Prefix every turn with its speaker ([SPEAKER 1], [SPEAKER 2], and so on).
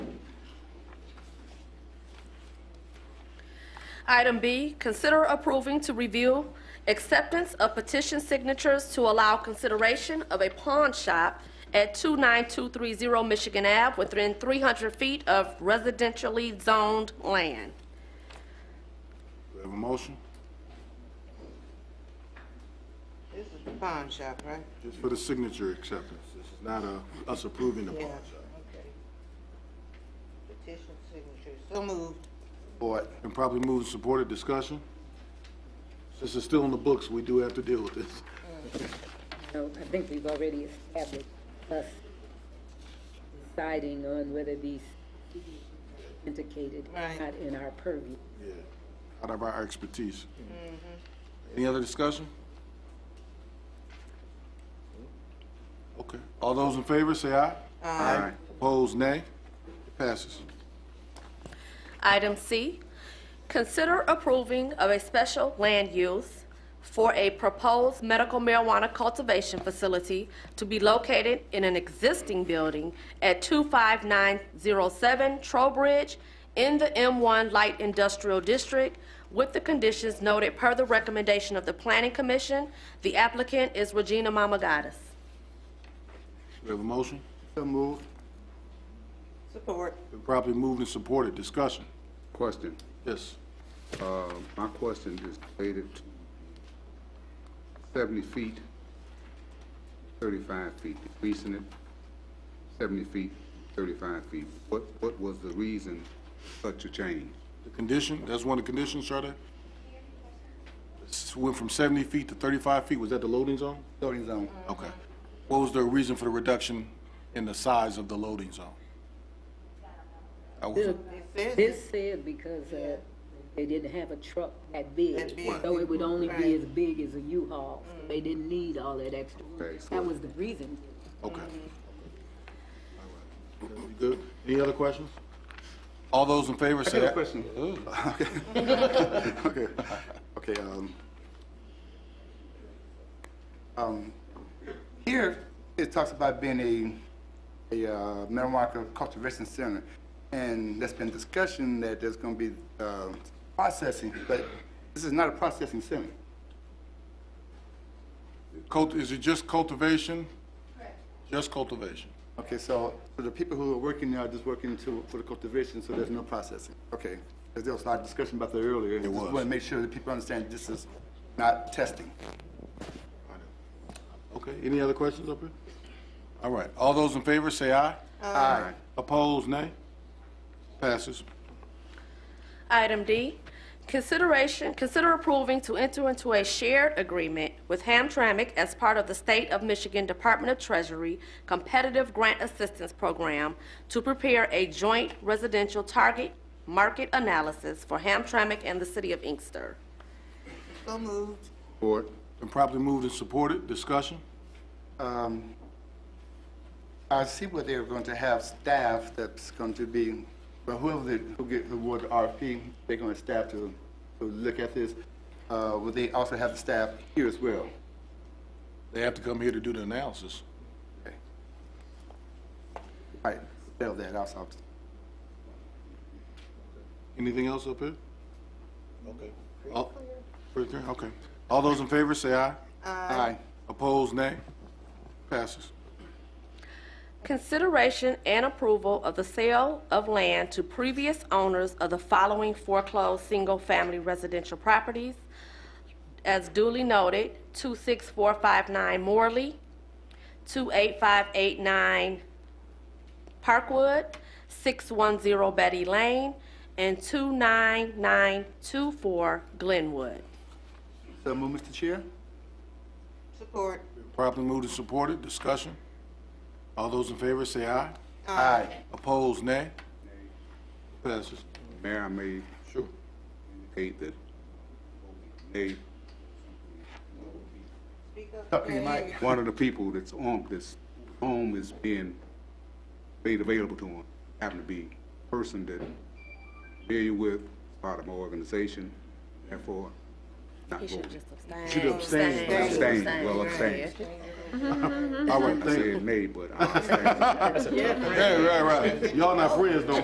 [SPEAKER 1] Item B, consider approving to review acceptance of petition signatures to allow consideration of a pawn shop at 29230 Michigan Ave within 300 feet of residentially zoned land.
[SPEAKER 2] Do we have a motion?
[SPEAKER 3] This is the pawn shop, right?
[SPEAKER 2] Just for the signature acceptance. This is not uh, us approving the pawn shop.
[SPEAKER 3] Okay. Petition signature, so moved.
[SPEAKER 2] Board, and probably move and supported discussion. Since it's still in the books, we do have to deal with this.
[SPEAKER 4] So I think we've already established us deciding on whether these indicated or
[SPEAKER 3] Right.
[SPEAKER 4] not in our purview.
[SPEAKER 2] Yeah. Out of our expertise. Any other discussion? Okay. All those in favor, say aye. Aye. Opposed, nay. It passes.
[SPEAKER 1] Item C, consider approving of a special land use for a proposed medical marijuana cultivation facility to be located in an existing building at 25907 Trowbridge in the M1 Light Industrial District with the conditions noted per the recommendation of the Planning Commission. The applicant is Regina Mamagatis.
[SPEAKER 2] Do we have a motion?
[SPEAKER 5] So moved.
[SPEAKER 3] Support.
[SPEAKER 2] Been properly moved and supported. Discussion.
[SPEAKER 5] Question.
[SPEAKER 2] Yes.
[SPEAKER 5] Uh, My question is related to 70 feet, 35 feet, decreasing it 70 feet, 35 feet. What, what was the reason such a change?
[SPEAKER 2] The condition, that's one of the conditions, sir, that? This Went from 70 feet to 35 feet. Was that the loading zone?
[SPEAKER 5] Loading zone.
[SPEAKER 2] Okay. What was the reason for the reduction in the size of the loading zone? I was-
[SPEAKER 3] It says it.
[SPEAKER 4] This said because uh, they didn't have a truck that big,
[SPEAKER 3] That big.
[SPEAKER 4] so it would only be
[SPEAKER 3] Right. Mm.
[SPEAKER 4] as big as a U-Haul. So They didn't need all that extra.
[SPEAKER 5] Okay, so-
[SPEAKER 4] That was the reason.
[SPEAKER 2] Okay. All right. You Good. Any other questions? All those in favor say aye.
[SPEAKER 5] Okay, okay, um, um, here, it talks about being a, a uh, marijuana cultivation center, and there's been discussion that there's gonna be, uh, processing, but this is not a processing center.
[SPEAKER 2] Cult- Is it just cultivation? Just cultivation.
[SPEAKER 5] Okay, so, so the people who are working there are just working to, for the cultivation, so there's no processing, okay? 'Cause there was a lot of discussion about that earlier. It
[SPEAKER 2] was.
[SPEAKER 5] Just wanna make sure that people understand this is not testing.
[SPEAKER 2] Okay. Any other questions up here? All right. All those in favor say aye.
[SPEAKER 5] Aye.
[SPEAKER 2] Opposed, nay? Passes.
[SPEAKER 1] Item D, consideration, consider approving to enter into a shared agreement with Hamtramck as part of the State of Michigan Department of Treasury Competitive Grant Assistance Program to prepare a joint residential target market analysis for Hamtramck and the City of Inkster.
[SPEAKER 3] So moved.
[SPEAKER 5] Board.
[SPEAKER 2] Been properly moved and supported. Discussion?
[SPEAKER 5] Um, I see what they're going to have staff that's going to be, but whoever they, who get the award the RFP, they're going to staff to, to look at this. Uh, will they also have the staff here as well?
[SPEAKER 2] They have to come here to do the analysis.
[SPEAKER 5] Okay. All right, settle that out, so-
[SPEAKER 2] Anything else up here? Okay. All- Pretty clear? Okay. All those in favor say aye.
[SPEAKER 5] Aye.
[SPEAKER 2] Opposed, nay? Passes.
[SPEAKER 1] Consideration and approval of the sale of land to previous owners of the following foreclosed single-family residential properties. As duly noted, 26459 Morley, 28589 Parkwood, 610 Betty Lane, and 29924 Glenwood.
[SPEAKER 5] So move, Mr. Chair?
[SPEAKER 3] Support.
[SPEAKER 2] Properly moved and supported. Discussion? All those in favor say aye.
[SPEAKER 5] Aye.
[SPEAKER 2] Opposed, nay? Passes.
[SPEAKER 6] Mayor, I may
[SPEAKER 2] Sure.
[SPEAKER 6] indicate that they,
[SPEAKER 3] Speak up.
[SPEAKER 5] Talking to
[SPEAKER 3] Mr.
[SPEAKER 5] Mike.
[SPEAKER 6] one of the people that's on, this home is being made available to him, happen to be a person that familiar with, part of my organization, therefore, not voting.
[SPEAKER 1] Should abstain.
[SPEAKER 6] Abstain, well, abstain.
[SPEAKER 2] All right,
[SPEAKER 6] I
[SPEAKER 2] thank you.
[SPEAKER 6] said nay, but I abstain.
[SPEAKER 2] Yeah, right, right. Y'all not friends no